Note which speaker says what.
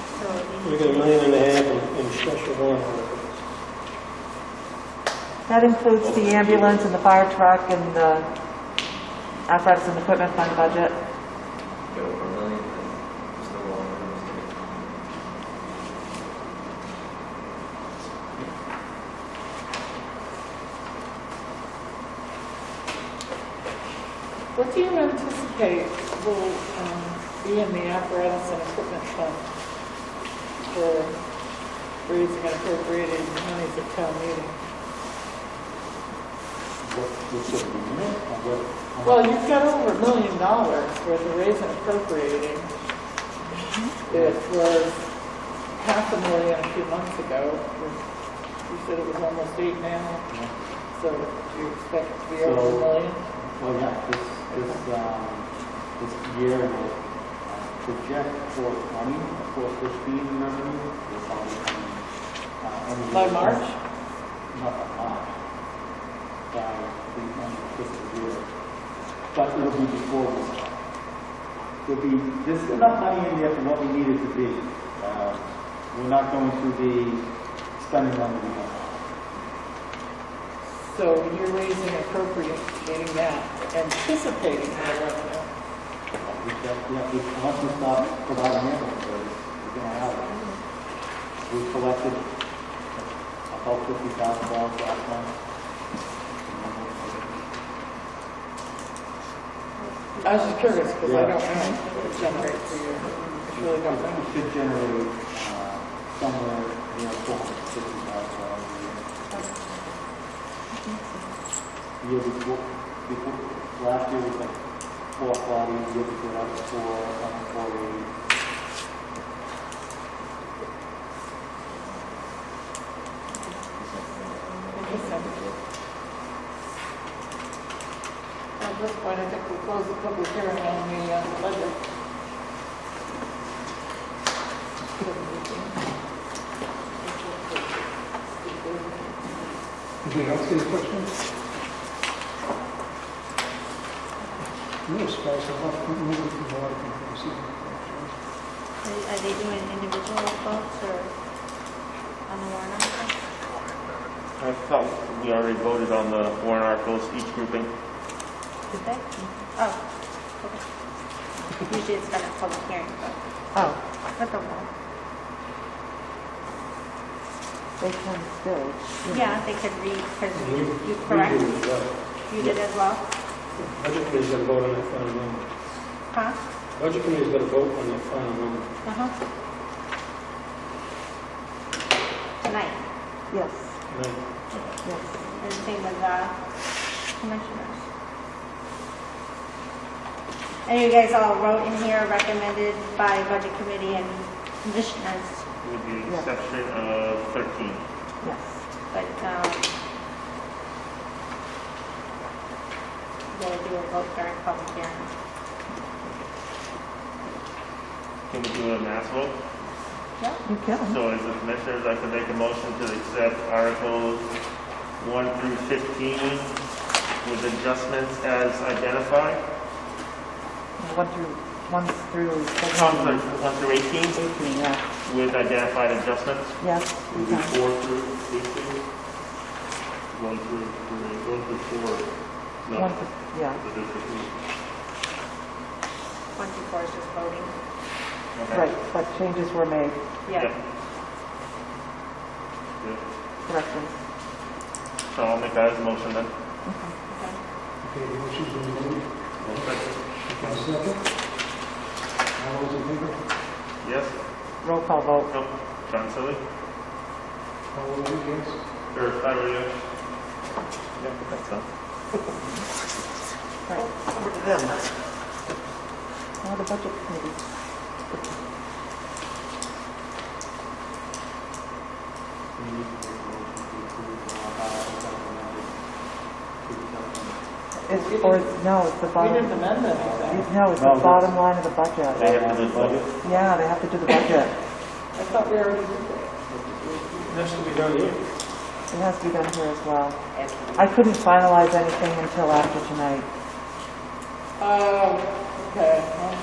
Speaker 1: We got a million and a half in in special warrant articles.
Speaker 2: That includes the ambulance and the fire truck and the apparatus and equipment fund budget.
Speaker 3: Go over a million, then it's no longer a mistake.
Speaker 4: What do you anticipate will um, be in the apparatus and equipment fund for raising and appropriating monies at town meeting? Well, you've got over a million dollars worth of raising and appropriating. It was half a million a few months ago. You said it was almost eight now. So do you expect it to be over a
Speaker 5: So-
Speaker 4: million?
Speaker 5: Well, yeah, this, this, um, this year will uh, project for twenty, for fifteen revenue. will probably come, uh, end of
Speaker 4: By
Speaker 5: the-
Speaker 4: March?
Speaker 5: Not by March. By the end of fiscal year. But it'll be before this. There'll be, there's enough money in there for what we need it to be. Uh, We're not going to be spending money we don't have.
Speaker 4: So you're raising and appropriating that, anticipating that revenue.
Speaker 5: We don't- we have- we- Once we stop providing ambulance service, we're gonna have it. We collected about fifty thousand dollars last month.
Speaker 4: I was just curious, because I don't know what it generates for you. I really don't know.
Speaker 5: It should generate, uh, somewhere, you know, four hundred fifty thousand dollars a year. The Year before, before, last year was like four forty, the year before that was four, um, four eighty.
Speaker 4: At this point, I think we'll close the public hearing on the uh, budget.
Speaker 6: Anybody else any questions? No, surprise, a lot, moving from a lot of people who see it.
Speaker 7: Are are they doing individual votes or on the warrant article?
Speaker 8: I thought we already voted on the warrant articles, each grouping.
Speaker 7: Did they? Oh, okay. Usually it's done at public hearing, but,
Speaker 2: Oh,
Speaker 7: but the warrant.
Speaker 2: they can still.
Speaker 7: Yeah, they could read, because
Speaker 1: And
Speaker 7: you,
Speaker 1: we-
Speaker 7: you correct,
Speaker 1: We do as well.
Speaker 7: you did as well,
Speaker 1: Budget committee's got to vote on that final number.
Speaker 7: huh?
Speaker 1: Budget committee's got to vote on that final number.
Speaker 7: Uh-huh. Tonight,
Speaker 2: Yes,
Speaker 1: And I-
Speaker 2: yes.
Speaker 7: and same with the commissioners. And you guys all wrote in here recommended by budget committee and commissioners.
Speaker 8: With the exception of 13.
Speaker 2: Yes.
Speaker 7: But, um, we'll do a vote during public hearing.
Speaker 8: Can we do a mass vote?
Speaker 2: You can.
Speaker 8: So as the commissioners, I can make a motion to accept Articles 1 through 15 with adjustments as identified.
Speaker 2: One through, one through.
Speaker 8: No, I'm sorry, 1 through 18
Speaker 2: Eighteen, yeah.
Speaker 8: with identified adjustments.
Speaker 2: Yes, you
Speaker 8: We'll do
Speaker 2: can.
Speaker 8: 4 through 18. 1 through, three- 1 through 4.
Speaker 2: One,
Speaker 8: No,
Speaker 2: yeah,
Speaker 8: the district.
Speaker 7: Twenty-four is just voting.
Speaker 8: Okay.
Speaker 2: right, but changes were made,
Speaker 8: Yep.
Speaker 7: Yeah.
Speaker 8: Yep.
Speaker 2: corrections.
Speaker 8: So I'll make that as a motion then.
Speaker 6: Okay, the motion's been made. Okay, second. All those in favor?
Speaker 8: Yes?
Speaker 2: Roll call vote.
Speaker 8: No? John Silly?
Speaker 6: All those against?
Speaker 8: Or Tyler, yes? Yep, that's done.
Speaker 2: Now the budget committee.
Speaker 5: We need to make a motion to approve, uh, articles that were amended to the government.
Speaker 2: It's, or, it's- no, it's the
Speaker 4: We
Speaker 2: bottom,
Speaker 4: didn't amend anything.
Speaker 2: no, it's the
Speaker 5: No, that's-
Speaker 2: bottom line of the budget.
Speaker 8: They have to do the budget.
Speaker 2: Yeah, they have to do the budget.
Speaker 4: I thought we already did that.
Speaker 1: It has to be done here.
Speaker 2: It has to be done here as well. I couldn't finalize anything until after tonight.
Speaker 4: Oh, okay. Well,